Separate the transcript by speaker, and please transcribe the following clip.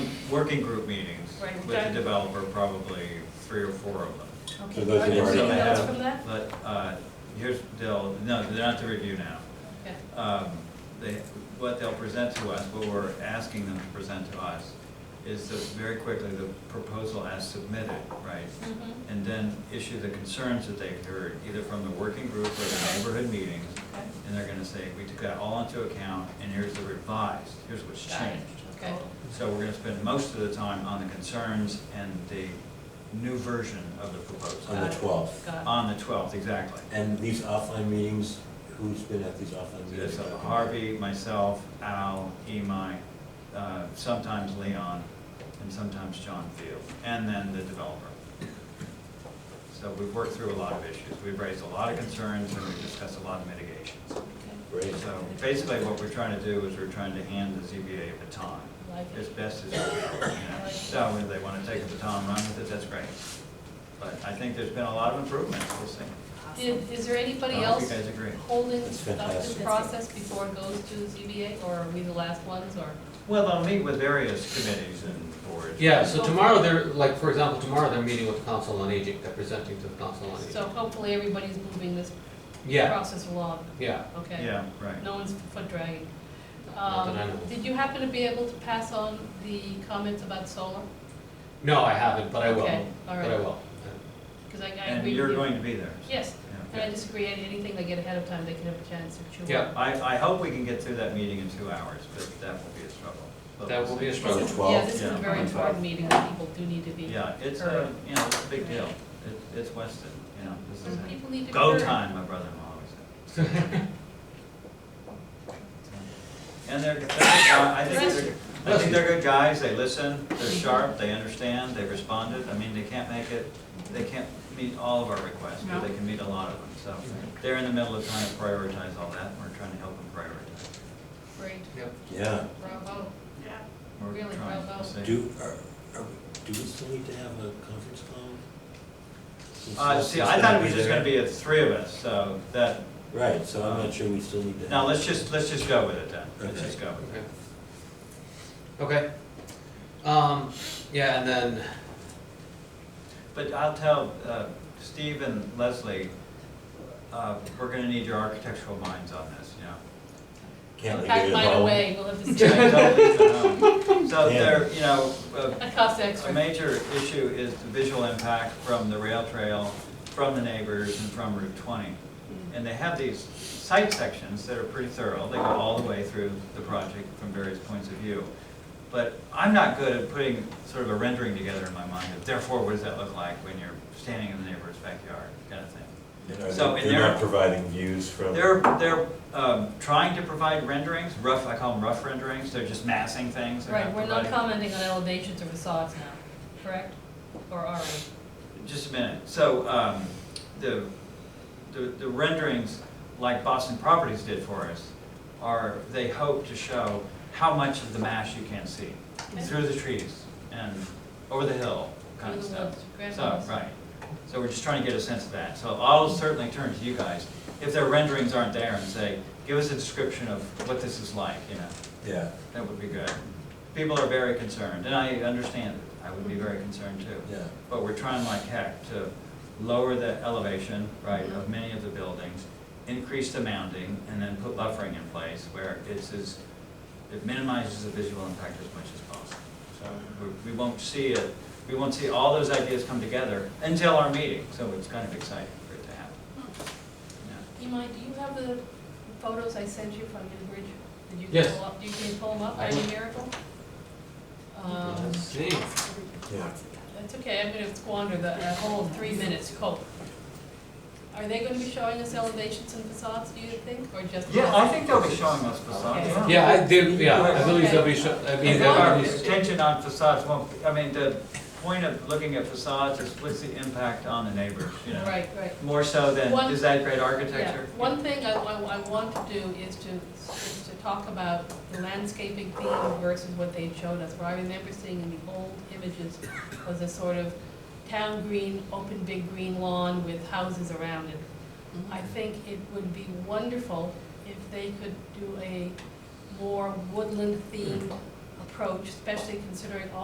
Speaker 1: working group meetings
Speaker 2: Right,
Speaker 1: with
Speaker 2: that-
Speaker 1: the developer, probably three or foor of them.
Speaker 2: Okay,
Speaker 3: So those
Speaker 2: are
Speaker 3: are
Speaker 2: there
Speaker 3: already-
Speaker 1: So I
Speaker 2: emails
Speaker 1: have-
Speaker 2: from that?
Speaker 1: But, uh, here's, they'll, no, they're not to review now.
Speaker 2: Okay.
Speaker 1: Um, They, what they'll present to us, what we're asking them to present to us, is the, very quickly, the proposal as submitted, right?
Speaker 2: Mhm.
Speaker 1: And then issue the concerns that they've heard, either from the working group or the neighborhood meetings.
Speaker 2: Okay.
Speaker 1: And they're gonna say, we took that all into account, and here's the revised, here's what's
Speaker 2: Got it.
Speaker 1: changed.
Speaker 2: Okay,
Speaker 1: So we're gonna spend most of the time on the concerns and the new version of the proposal.
Speaker 3: on
Speaker 2: Got
Speaker 3: the
Speaker 2: it.
Speaker 3: twelfth.
Speaker 2: got
Speaker 1: On the twelfth, exactly.
Speaker 3: And these offline meetings, who's been at these offline meetings?
Speaker 1: It's Harvey, myself, Al, Imai, uh, sometimes Leon, and sometimes John Field, and then the developer. So we've worked through a lot of issues. We've raised a lot of concerns, and we've discussed a lot of mitigations.
Speaker 2: it. Okay.
Speaker 3: Great.
Speaker 1: So basically, what we're trying to do is we're trying to hand the ZBA a baton
Speaker 2: Like
Speaker 1: as
Speaker 2: it.
Speaker 1: best as we can. you know. So if they want to take the baton and run with it, that's great. But I think there's been a lot of improvements, we'll see.
Speaker 2: Did, is there anybody
Speaker 1: I hope you
Speaker 2: else
Speaker 1: guys agree.
Speaker 2: holding
Speaker 3: That's
Speaker 2: up this
Speaker 3: fantastic.
Speaker 2: process before it goes to ZBA, or are we the last ones, or?
Speaker 1: Well, they'll meet with various committees and boards.
Speaker 4: Yeah, so tomorrow they're, like, for example, tomorrow they're meeting with the Council on Aging, they're presenting to the Council on
Speaker 2: So
Speaker 4: Aging.
Speaker 2: hopefully everybody's moving this
Speaker 4: Yeah,
Speaker 2: process along,
Speaker 4: yeah.
Speaker 2: okay?
Speaker 1: Yeah, right.
Speaker 2: No one's foot dragging.
Speaker 4: Not that I
Speaker 2: Um,
Speaker 4: know of.
Speaker 2: Did you happen to be able to pass on the comments about solar?
Speaker 4: No, I haven't, but I will,
Speaker 2: Okay, all
Speaker 4: but I
Speaker 2: right,
Speaker 4: will.
Speaker 2: because I, I
Speaker 1: And
Speaker 2: agree
Speaker 1: you're
Speaker 2: with you.
Speaker 1: going to be there.
Speaker 2: Yes,
Speaker 1: Yeah.
Speaker 2: and I disagree, on anything they get ahead of time, they can have a chance to chew on.
Speaker 4: Yeah.
Speaker 1: I, I hope we can get through that meeting in two hours, but that will be a struggle. But
Speaker 4: That will
Speaker 1: we'll
Speaker 4: be a
Speaker 1: see.
Speaker 3: On the
Speaker 4: struggle.
Speaker 2: Yeah,
Speaker 3: twelfth,
Speaker 2: this is a
Speaker 1: Yeah.
Speaker 2: very important meeting, that people do need to be.
Speaker 1: Yeah, it's a,
Speaker 2: heard.
Speaker 1: you know, it's a big deal. It- It's Weston, you know, this is
Speaker 2: And people need to
Speaker 1: it.
Speaker 2: be
Speaker 1: Go
Speaker 2: heard.
Speaker 1: time, my brother-in-law always said. And they're, they're good guy- I think they're, I think they're good guys. They listen, they're sharp, they understand, they responded. I mean, they can't make it, they can't meet all of our requests, but they can meet a lot of them. So they're in the middle of trying to prioritize all that. and We're trying to help them prioritize.
Speaker 2: Great,
Speaker 4: Yep.
Speaker 3: yeah.
Speaker 2: bravo.
Speaker 1: We're
Speaker 2: Really,
Speaker 1: trying
Speaker 2: well,
Speaker 1: to see.
Speaker 3: Do, are, are, do we still need to have a conference call? Since
Speaker 1: Uh,
Speaker 3: this
Speaker 1: see,
Speaker 3: is
Speaker 1: I thought it was
Speaker 3: be
Speaker 1: just
Speaker 3: there.
Speaker 1: gonna be the three of us, so that,
Speaker 3: Right, so I'm not sure we still need to.
Speaker 1: now,
Speaker 3: have-
Speaker 1: let's just, let's just go with it then, let's
Speaker 3: Okay.
Speaker 1: just go with it.
Speaker 4: Okay. Okay. Um, yeah, and then,
Speaker 1: But I'll tell, uh, Steve and Leslie, uh, we're gonna need your architectural minds on this, you know.
Speaker 3: Can't we get
Speaker 2: Pack
Speaker 3: it
Speaker 2: mine
Speaker 3: home?
Speaker 2: away, we'll have to see.
Speaker 1: Don't
Speaker 2: That
Speaker 1: leave it alone. So
Speaker 3: Yeah.
Speaker 1: there, you know, uh,
Speaker 2: costs
Speaker 1: A
Speaker 2: extra.
Speaker 1: major issue is the visual impact from the rail trail, from the neighbors, and from Route 20.
Speaker 2: Mm.
Speaker 1: And they have these site sections that are pretty thorough, they go all the way through the project from various points of view. But I'm not good at putting sort of a rendering together in my mind, of therefore, what does that look like when you're standing in the neighbor's backyard, kind of thing.
Speaker 3: And are
Speaker 1: So,
Speaker 3: they-
Speaker 1: and
Speaker 3: They're
Speaker 1: they're-
Speaker 3: not providing views from.
Speaker 1: They're, they're um, trying to provide renderings, rough, I call them rough renderings, they're just massing things. they're
Speaker 2: Right, we're not
Speaker 1: providing-
Speaker 2: commenting on elevations or facades now, correct? Or are we?
Speaker 1: Just a minute. So, um, the, the the renderings, like Boston Properties did for us, are, they hope to show how much of the mash you can see through the trees and over the hill kind of
Speaker 2: Through the
Speaker 1: stuff.
Speaker 2: woods, grand
Speaker 1: So,
Speaker 2: woods.
Speaker 1: right. So we're just trying to get a sense of that. So I'll certainly turn to you guys, if their renderings aren't there, and say, give us a description of what this is like, you know?
Speaker 3: Yeah,
Speaker 1: That would be good. People are very concerned, and I understand it. I would
Speaker 2: Mm-hmm.
Speaker 1: be very concerned too.
Speaker 3: yeah.
Speaker 1: But we're trying like heck to lower the elevation, right, of many of the buildings, increase the mounding, and then put buffering in place where it's as, it minimizes the visual impact as much as possible. So we- we won't see it, we won't see all those ideas come together until our meeting, so it's kind of exciting for it to happen. Yeah.
Speaker 2: Imai, do you have the photos I sent you from New Bridge? Did you
Speaker 4: Yes.
Speaker 2: pull up, do you can pull them up by
Speaker 4: I-
Speaker 2: any miracle? Um,
Speaker 4: let's see.
Speaker 3: Yeah.
Speaker 2: That's okay, I'm gonna squander the, a whole three minutes, cope. Are they gonna be showing us elevations and facades, do you think, or just?
Speaker 1: Yeah, I think they'll be showing us facades.
Speaker 2: Okay.
Speaker 4: Yeah, I did, yeah, I believe they'll be, sho- I mean,
Speaker 1: As
Speaker 4: they'll
Speaker 1: long
Speaker 4: already,
Speaker 1: as the Attention on facades won't, be- I mean, the point of looking at facades is what's the impact on the neighbors, you know?
Speaker 2: Right, right.
Speaker 1: More so than,
Speaker 2: One-
Speaker 1: is that great
Speaker 2: Yeah,
Speaker 1: architecture?
Speaker 2: one thing I, I, I want to do is to, is to talk about the landscaping theme versus what they showed us. What I remember seeing in the old images was a sort of town green, open big green lawn with houses around it. I think it would be wonderful if they could do a more woodland themed approach, especially considering all.